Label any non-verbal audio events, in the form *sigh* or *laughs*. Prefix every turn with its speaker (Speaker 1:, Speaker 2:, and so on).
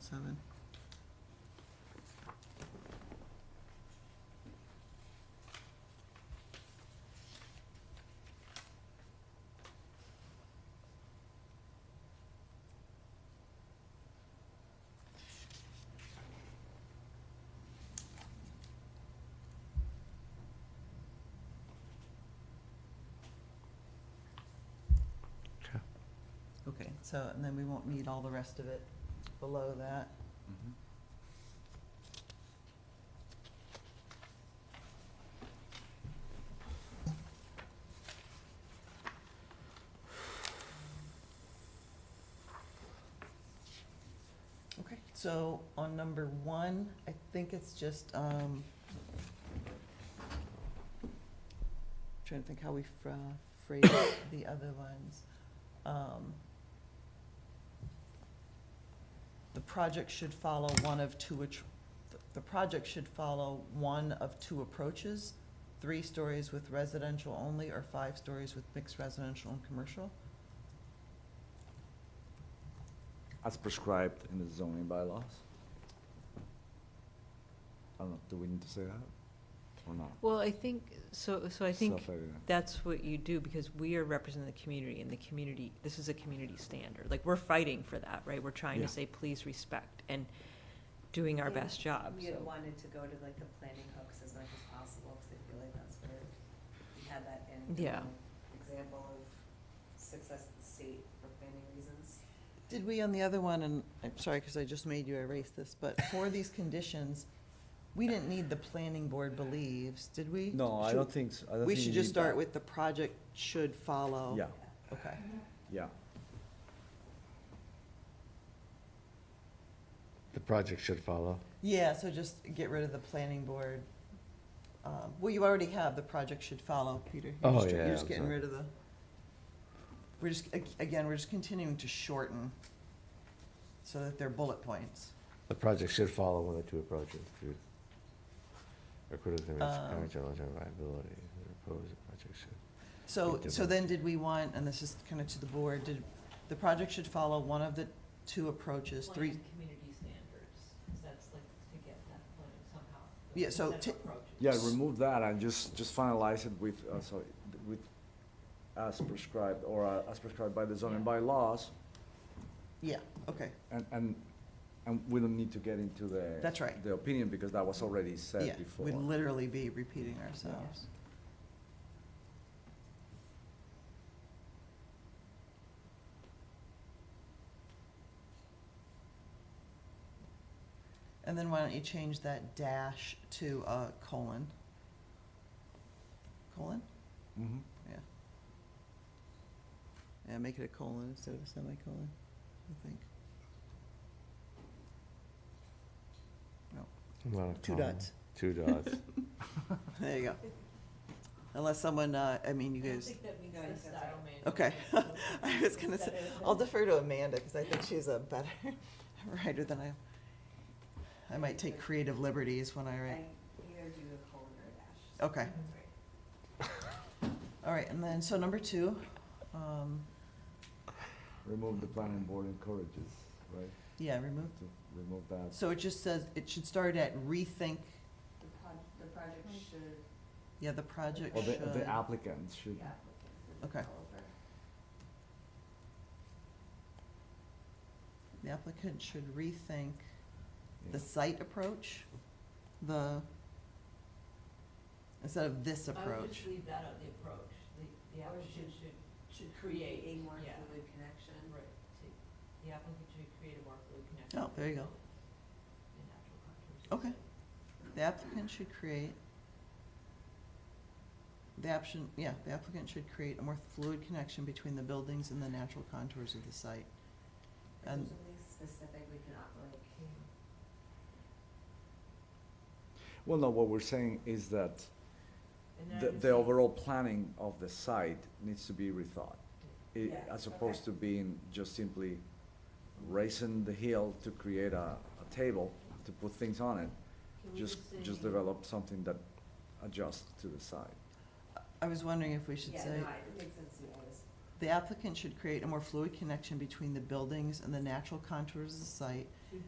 Speaker 1: seven.
Speaker 2: Okay.
Speaker 1: Okay, so, and then we won't need all the rest of it below that. Mm-hmm. Okay, so on number one, I think it's just, um, trying to think how we fra- phrase *coughs* the other ones. Um, The project should follow one of two, attr- the- the project should follow one of two approaches, three stories with residential only or five stories with mixed residential and commercial.
Speaker 2: As prescribed in the zoning bylaws. I don't know, do we need to say that or not?
Speaker 3: Well, I think, so, so I think
Speaker 2: Self-evident.
Speaker 3: that's what you do, because we are representing the community, and the community, this is a community standard. Like, we're fighting for that, right? We're trying
Speaker 2: Yeah.
Speaker 3: to say, please respect, and doing our
Speaker 4: Yeah.
Speaker 3: best job,
Speaker 4: We had
Speaker 3: so.
Speaker 4: wanted to go to like the planning hooks as much as possible, because I feel like that's where we had that in.
Speaker 3: Yeah.
Speaker 4: um, Example of success at the state for planning reasons.
Speaker 1: Did we on the other one, and I'm sorry, because I just made you erase this, but for
Speaker 2: *laughs*
Speaker 1: these conditions, we didn't need the planning board believes, did we?
Speaker 2: No, I
Speaker 1: Should-
Speaker 2: don't think, so. I don't
Speaker 1: We
Speaker 2: think
Speaker 1: should
Speaker 2: you
Speaker 1: just
Speaker 2: need
Speaker 1: start
Speaker 2: that.
Speaker 1: with the project should follow.
Speaker 2: Yeah,
Speaker 1: Okay.
Speaker 2: yeah.
Speaker 5: The project should follow.
Speaker 1: Yeah, so just get rid of the planning board. Um, Well, you already have, the project should follow, Peter. You're
Speaker 5: Oh,
Speaker 1: just-
Speaker 5: yeah,
Speaker 1: You're just getting
Speaker 5: sorry.
Speaker 1: rid of the, we're just, ag- again, we're just continuing to shorten so that they're bullet points.
Speaker 5: The project should follow one of the two approaches. to- Or could have been
Speaker 1: Um,
Speaker 5: current challenge and viability. The proposed project should.
Speaker 1: So, so
Speaker 5: Big difference.
Speaker 1: then did we want, and this is kind of to the board, did, the project should follow one of the two approaches, three,
Speaker 3: community standards, because that's like, to get that point somehow.
Speaker 1: Yeah, so set of ta-
Speaker 2: Yeah, remove that and just, just finalize it with, uh, sorry, with as prescribed or uh, as prescribed by the zoning
Speaker 3: Yeah.
Speaker 2: bylaws.
Speaker 1: yeah, okay,
Speaker 2: And, and, and we don't need to get into the.
Speaker 1: That's right.
Speaker 2: The opinion because that was already
Speaker 1: yeah.
Speaker 2: said before.
Speaker 1: We'd literally be repeating ourselves. And then why don't you change that dash to a colon? Colon?
Speaker 2: Mhm.
Speaker 1: Yeah. Yeah, make it a colon instead of a semicolon, I think.
Speaker 5: Not a
Speaker 1: Two
Speaker 5: comma.
Speaker 1: dots.
Speaker 5: Two dots.
Speaker 1: There you go. Unless someone, uh, I mean, you guys,
Speaker 3: that
Speaker 4: meets the style
Speaker 3: manual.
Speaker 1: okay. *laughs* I was gonna say, I'll defer to Amanda, because I think she's a better *laughs* writer than I am. I might take creative liberties when I write.
Speaker 4: I either do a colon or a dash.
Speaker 1: Okay, all right, and then, so number two, um,
Speaker 2: Remove the planning board encourages, right?
Speaker 1: yeah, remove.
Speaker 2: To remove that.
Speaker 1: So it just says, it should start at rethink,
Speaker 4: The pro, the project should,
Speaker 1: yeah, the project
Speaker 2: Or the,
Speaker 1: should.
Speaker 2: the applicants should.
Speaker 4: the applicant, the
Speaker 1: Okay.
Speaker 4: developer.
Speaker 1: The applicant should rethink the
Speaker 2: yeah.
Speaker 1: site approach, the, instead of this approach.
Speaker 3: leave that out, the approach, the,
Speaker 4: Or applicant should-
Speaker 3: should
Speaker 4: A more fluid connection.
Speaker 3: Right, the applicant should create a more fluid connection.
Speaker 1: Oh, there you go. Okay. The applicant should create, the option, yeah, the applicant should create a more fluid connection between the buildings and the natural contours of the site.
Speaker 4: If
Speaker 1: And-
Speaker 4: there's something specific, we can opt like,
Speaker 2: Well, no, what we're saying is that the, the overall planning of the site needs to be rethought. i-
Speaker 4: Yeah,
Speaker 2: As
Speaker 4: okay.
Speaker 2: opposed to being just simply raising the hill to create a, a table, to put things on it. Just, just develop something that adjusts to the site.
Speaker 1: I was wondering if we should
Speaker 4: yeah,
Speaker 1: say,
Speaker 4: no, I- it makes sense to me, I was
Speaker 1: the applicant should create a more fluid connection between the buildings and the natural contours of the site